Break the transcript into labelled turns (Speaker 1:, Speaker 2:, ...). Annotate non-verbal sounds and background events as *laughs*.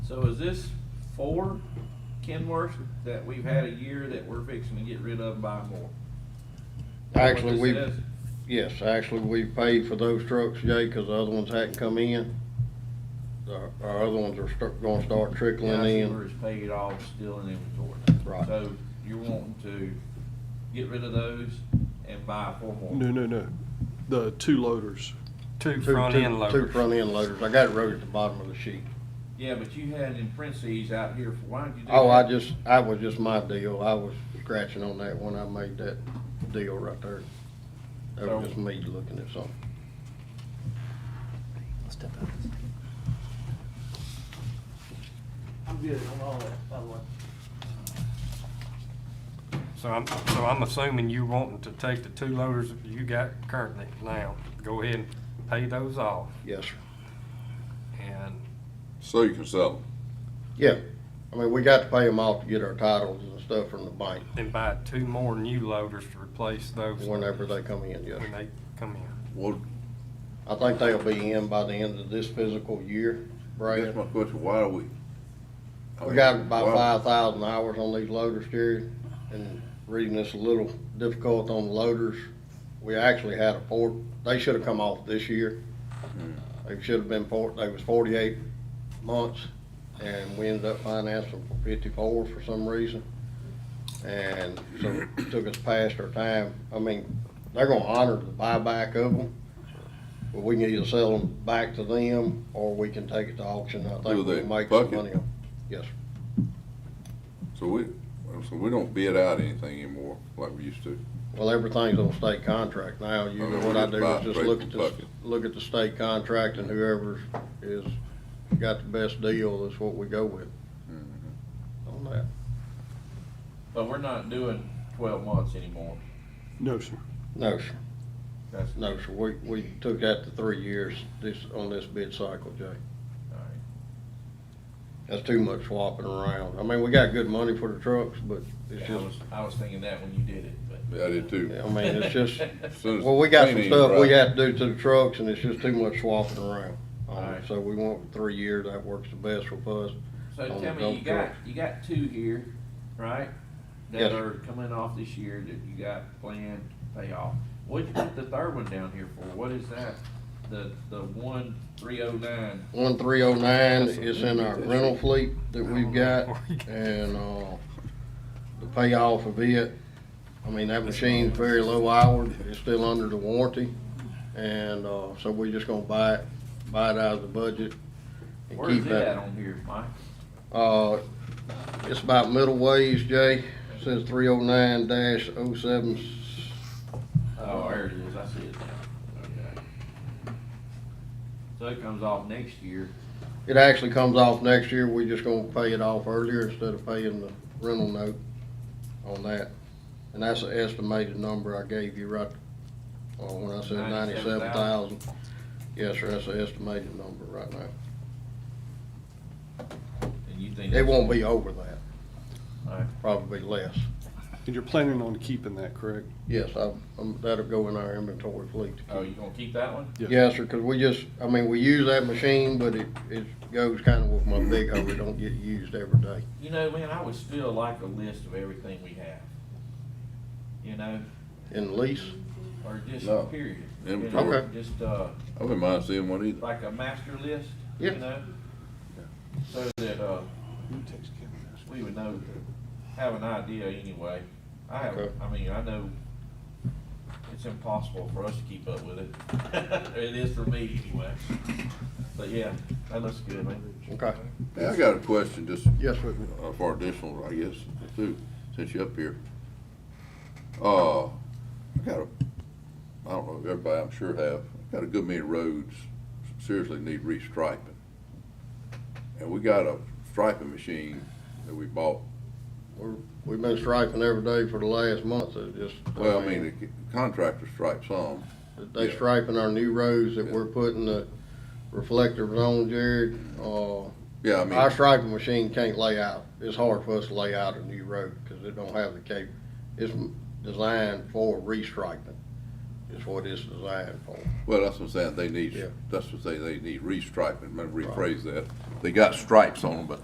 Speaker 1: So is this four Kenworths that we've had a year that we're fixing to get rid of and buy more?
Speaker 2: Actually,
Speaker 1: What this
Speaker 2: we,
Speaker 1: is?
Speaker 2: yes, actually, we paid for those trucks, Jay, because the other ones hadn't come in. Our, our other ones are start, gonna start
Speaker 1: Yeah,
Speaker 2: trickling
Speaker 1: I see
Speaker 2: in.
Speaker 1: where it's paid off, still in inventory.
Speaker 2: Right.
Speaker 1: So you're wanting to get rid of those and buy four more?
Speaker 3: No, no, no. The two loaders.
Speaker 4: Two
Speaker 2: Two-
Speaker 4: front
Speaker 2: two-
Speaker 4: end
Speaker 2: Two
Speaker 4: loaders.
Speaker 2: front end loaders. I got it wrote at the bottom of the sheet.
Speaker 1: Yeah, but you had in parentheses out here, for why did you do that?
Speaker 2: Oh, I just, I was just my deal. I was scratching on that when I made that deal right there. That was just me looking at something.
Speaker 5: I'm good on all that, by the way.
Speaker 4: So I'm, so I'm assuming you wanting to take the two loaders that you got currently now, go ahead and pay those off
Speaker 2: Yes, sir.
Speaker 4: and,
Speaker 6: So you can sell them.
Speaker 2: Yeah. I mean, we got to pay them off to get our titles and stuff from the bank
Speaker 4: and buy two more new loaders to replace those.
Speaker 2: whenever they come in, yes. sir.
Speaker 4: When they come in.
Speaker 6: Well,
Speaker 2: I think they'll be in by the end of this physical year,
Speaker 6: that's
Speaker 2: Brad.
Speaker 6: my question, why are we? I
Speaker 2: We
Speaker 6: mean,
Speaker 2: got about
Speaker 6: why-
Speaker 2: five thousand hours on these loaders, Jerry, and reading this a little difficult on the loaders. We actually had a four, they should have come off this year. They should have been four, they was forty-eight months, and we ended up financing for fifty-four for some reason. And so it took us past our time. I mean, they're gonna honor the buyback of them. But we can either sell them back to them, or we can take it to auction. I
Speaker 6: Do
Speaker 2: think
Speaker 6: they
Speaker 2: we'll make some
Speaker 6: bucket?
Speaker 2: money on, yes, sir.
Speaker 6: So we, so we don't bid out anything anymore like we used to.
Speaker 2: Well, everything's on state contract now. Usually what I do is just look at the, look at the state contract and whoever's is, got the best deal, that's what we go with Mm-hmm. on that.
Speaker 1: But we're not doing twelve months anymore.
Speaker 3: No, sir.
Speaker 2: No, sir,
Speaker 1: That's, all
Speaker 2: no, sir. We, we took that to three years this, on this bid cycle, Jay.
Speaker 1: right.
Speaker 2: That's too much swapping around. I mean, we got good money for the trucks, but it's
Speaker 1: Yeah, I was,
Speaker 2: just,
Speaker 1: I was thinking that when you did it, but.
Speaker 6: Yeah, I did too.
Speaker 2: I
Speaker 1: *laughs*
Speaker 2: mean, it's just,
Speaker 6: As soon as
Speaker 2: well, we got
Speaker 6: clean
Speaker 2: some
Speaker 6: ain't
Speaker 2: stuff we
Speaker 6: right.
Speaker 2: had to do to the trucks and it's just too much swapping around. Um,
Speaker 1: Alright.
Speaker 2: So we went three years. That works the best for us.
Speaker 1: So
Speaker 2: on the
Speaker 1: tell me,
Speaker 2: dump
Speaker 1: you got,
Speaker 2: truck.
Speaker 1: you got two here, right? That
Speaker 2: Yes.
Speaker 1: are coming off this year that you got planned to pay off. What'd you put the third one down here for? What is that? The, the one three oh nine?
Speaker 2: One three oh nine is in our rental fleet that
Speaker 1: *laughs*
Speaker 2: we've got, and, uh, the payoff of it, I mean, that machine's very low hour, it's still under the warranty, and, uh, so we're just gonna buy it, buy it out of the budget. and
Speaker 1: Where
Speaker 2: keep
Speaker 1: is it
Speaker 2: that.
Speaker 1: at on here, Mike?
Speaker 2: Uh, it's about middle ways, Jay, says three oh nine dash oh seven,
Speaker 1: Oh, there it is. I see it now. Okay. So it comes off next year.
Speaker 2: it actually comes off next year, we just gonna pay it off earlier instead of paying the rental note on that. And that's the estimated number I gave you right, uh, when I said ninety-seven thousand. Yes, sir, that's the estimated number right now.
Speaker 1: And you think.
Speaker 2: It won't be over that,
Speaker 1: All right.
Speaker 2: probably less.
Speaker 3: And you're planning on keeping that, correct?
Speaker 2: Yes, I, um, that'll go in our inventory fleet.
Speaker 1: Oh, you gonna keep that one?
Speaker 3: Yeah.
Speaker 2: Yes, sir, cause we just, I mean, we use that machine, but it, it goes kinda with my big hoe, it don't get used every day.
Speaker 1: You know, man, I would still like a list of everything we have. You know,
Speaker 2: In lease,
Speaker 1: or just
Speaker 6: No.
Speaker 1: period. You know,
Speaker 6: Inventory.
Speaker 2: Okay.
Speaker 1: Just, uh,
Speaker 6: I wouldn't mind seeing one either.
Speaker 1: like a master list,
Speaker 2: Yeah.
Speaker 1: you know? So that, uh, we would know, have an idea anyway. I have,
Speaker 2: Okay.
Speaker 1: I mean, I know it's impossible for us to keep up with it. It *laughs* is for me anyway. But yeah, that looks good, man.
Speaker 2: okay,
Speaker 6: Hey, I got a question, just
Speaker 2: yes, sir.
Speaker 6: uh, for additional, I guess, too, since you're up here. Uh, I got a, I don't know, everybody I'm sure have, got a good many roads seriously need restriping. And we got a striping machine that we bought.
Speaker 2: We're, we've been striping every day for the last month, it just.
Speaker 6: Well, I mean, the contractor stripes some,
Speaker 2: They
Speaker 6: Yeah.
Speaker 2: striping our new roads that we're putting the reflectors on, Jared. Uh,
Speaker 6: yeah, I mean.
Speaker 2: our striping machine can't lay out. It's hard for us to lay out a new road because it don't have the cap. It's m- designed for restriping. Is what it's designed for.
Speaker 6: Well, that's what I'm saying, they need,
Speaker 2: Yeah.
Speaker 6: that's what they, they need restriping, let me rephrase that. They got stripes on them, but